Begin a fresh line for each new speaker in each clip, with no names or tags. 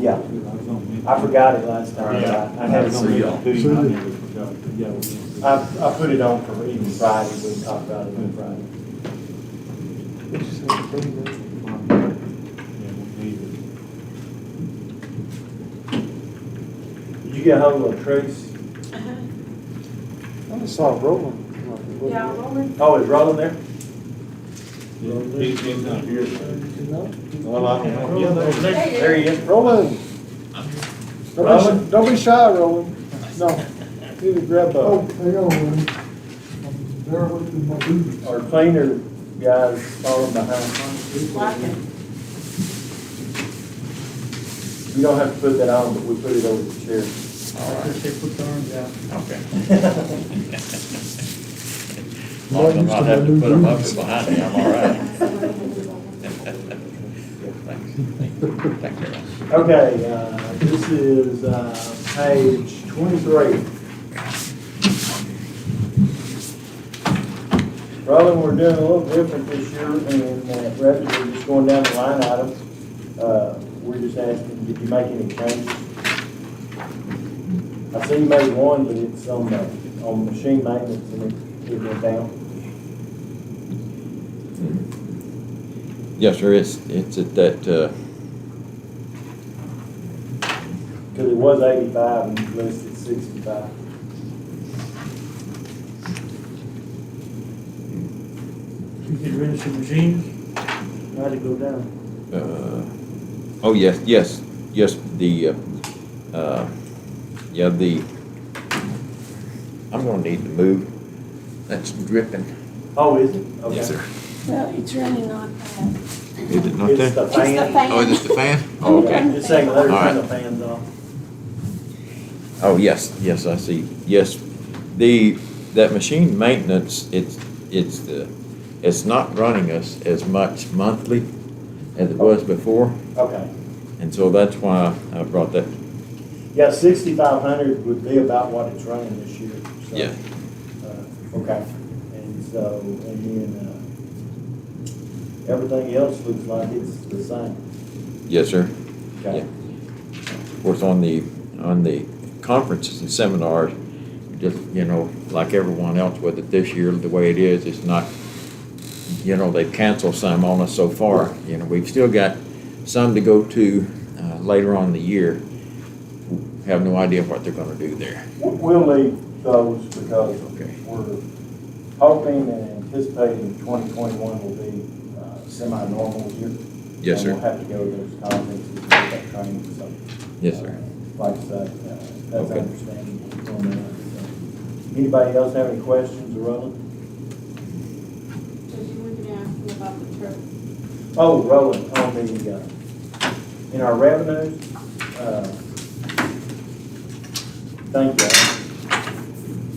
Yeah. I forgot it last time.
Yeah.
I I had it on.
See
my-
y'all.
See ya.
I, I put it on for even Friday, we talked about it on Friday. Uh, Did you get hold of Trace?
I just saw it rolling.
Yeah, Roland,
Oh, is Roland there?
He's, he's not here.
Well, I don't
there
There he is.
Roland. Don't be,
Roland?
sh- don't be shy, Roland. No, need to grab
Oh,
a.
hang on, man. I'm there with my boots.
Our cleaner guys falling behind. We don't have to put that on, but we put it over the chair.
Okay.
As long as I'm not having to put a bucket
behind me, I'm all
Okay, uh, this is, uh, page twenty-three. Roland, we're doing a little different this year in that rather than just going down the line items, uh, we're just asking, did you make any changes? I see you made one, but it's on, the- on machine maintenance and it, it went down.
Yes, sir, it's, it's at that, uh,
Cause it was eighty-five and you listed sixty-five.
You get rid of some machines,
How'd it go down?
uh, oh, yes, yes, yes, the, uh, uh, yeah, the, I'm gonna need to move. That's dripping.
Oh, is it? Okay.
sir.
No, it's really not bad.
Is it not
It's
there?
the
It's the
fan.
fan.
Oh, is this the fan? Oh, okay.
Just saying, let her turn the
Alright.
fans off.
Oh, yes, yes, I see, yes. The, that machine maintenance, it's, it's the, it's not running us as much monthly as it was before,
Okay.
and so that's why I brought that,
Yeah, sixty-five hundred would be about what it's running this year, so.
Yeah.
uh, Okay, and so, and then, uh, everything else looks like it's the same.
yes, sir.
Okay.
Of course, on the, on the conferences and seminars, just, you know, like everyone else with it this year, the way it is, it's not, you know, they've canceled some on us so far. You know, we've still got some to go to uh, later on in the year. Have no idea what they're gonna do there.
We'll- We'll leave those because
Okay.
we're hoping and anticipating twenty twenty-one will be uh, semi-normal year.
Yes,
And
sir.
we'll have to go to those conferences and get that training, so.
Yes, sir.
uh, Like I said, uh, that's
Okay.
understandable. on that, so. Anybody else have any questions, Roland?
So you were gonna ask me about the turf.
Oh, Roland, on the, uh, in our revenues, uh, thank you.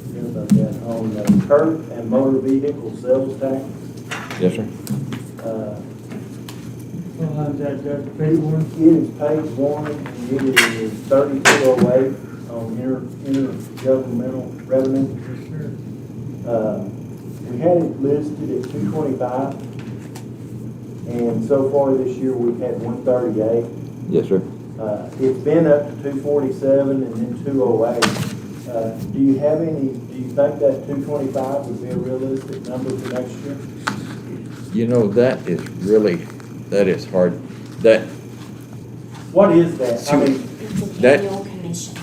Forget about that. uh, On the curb and motor vehicle sales tax,
Yes, sir.
uh,
sometimes that, that's a paid one.
It is page one, and it is thirty-two oh eight on inter, intergovernmental revenue. Uh, we had it listed at two twenty-five, and so far this year, we've had one thirty-eight.
Yes, sir.
Uh, it's been up to two forty-seven and then two oh eight. Uh, do you have any, do you think that two twenty-five would be a realistic number for next year?
You know, that is really, that is hard. That,
What is that? I mean,
It's an
That-
annual commission.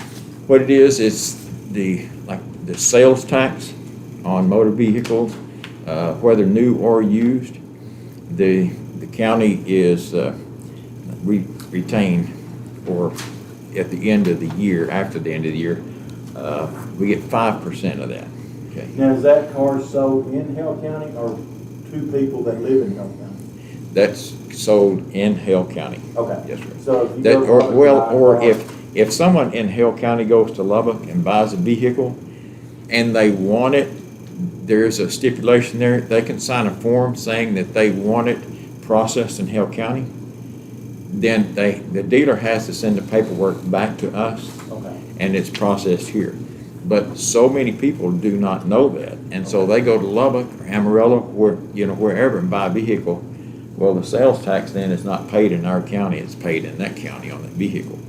What it is, it's the, like, the sales tax on motor vehicles, uh, whether new or used. The, the county is, uh, re- retained for, at the end of the year, after the end of the year, uh, we get five percent of that, okay?
now, is that car sold in Hale County or to people that live in Hale County?
That's sold in Hale County.
Okay.
Yes, sir.
So if you
That,
go
or,
from
well,
Lubbock
or
to-
if, if someone in Hale County goes to Lubbock and buys a vehicle and they want it, there's a stipulation there, they can sign a form saying that they want it processed in Hale County. Then they, the dealer has to send the paperwork back to us
Okay.
and it's processed here. But so many people do not know that, and so they go to Lubbock or Amarillo, where, you know, wherever and buy a vehicle Well, the sales tax then is not paid in our county, it's paid in that county on the vehicle.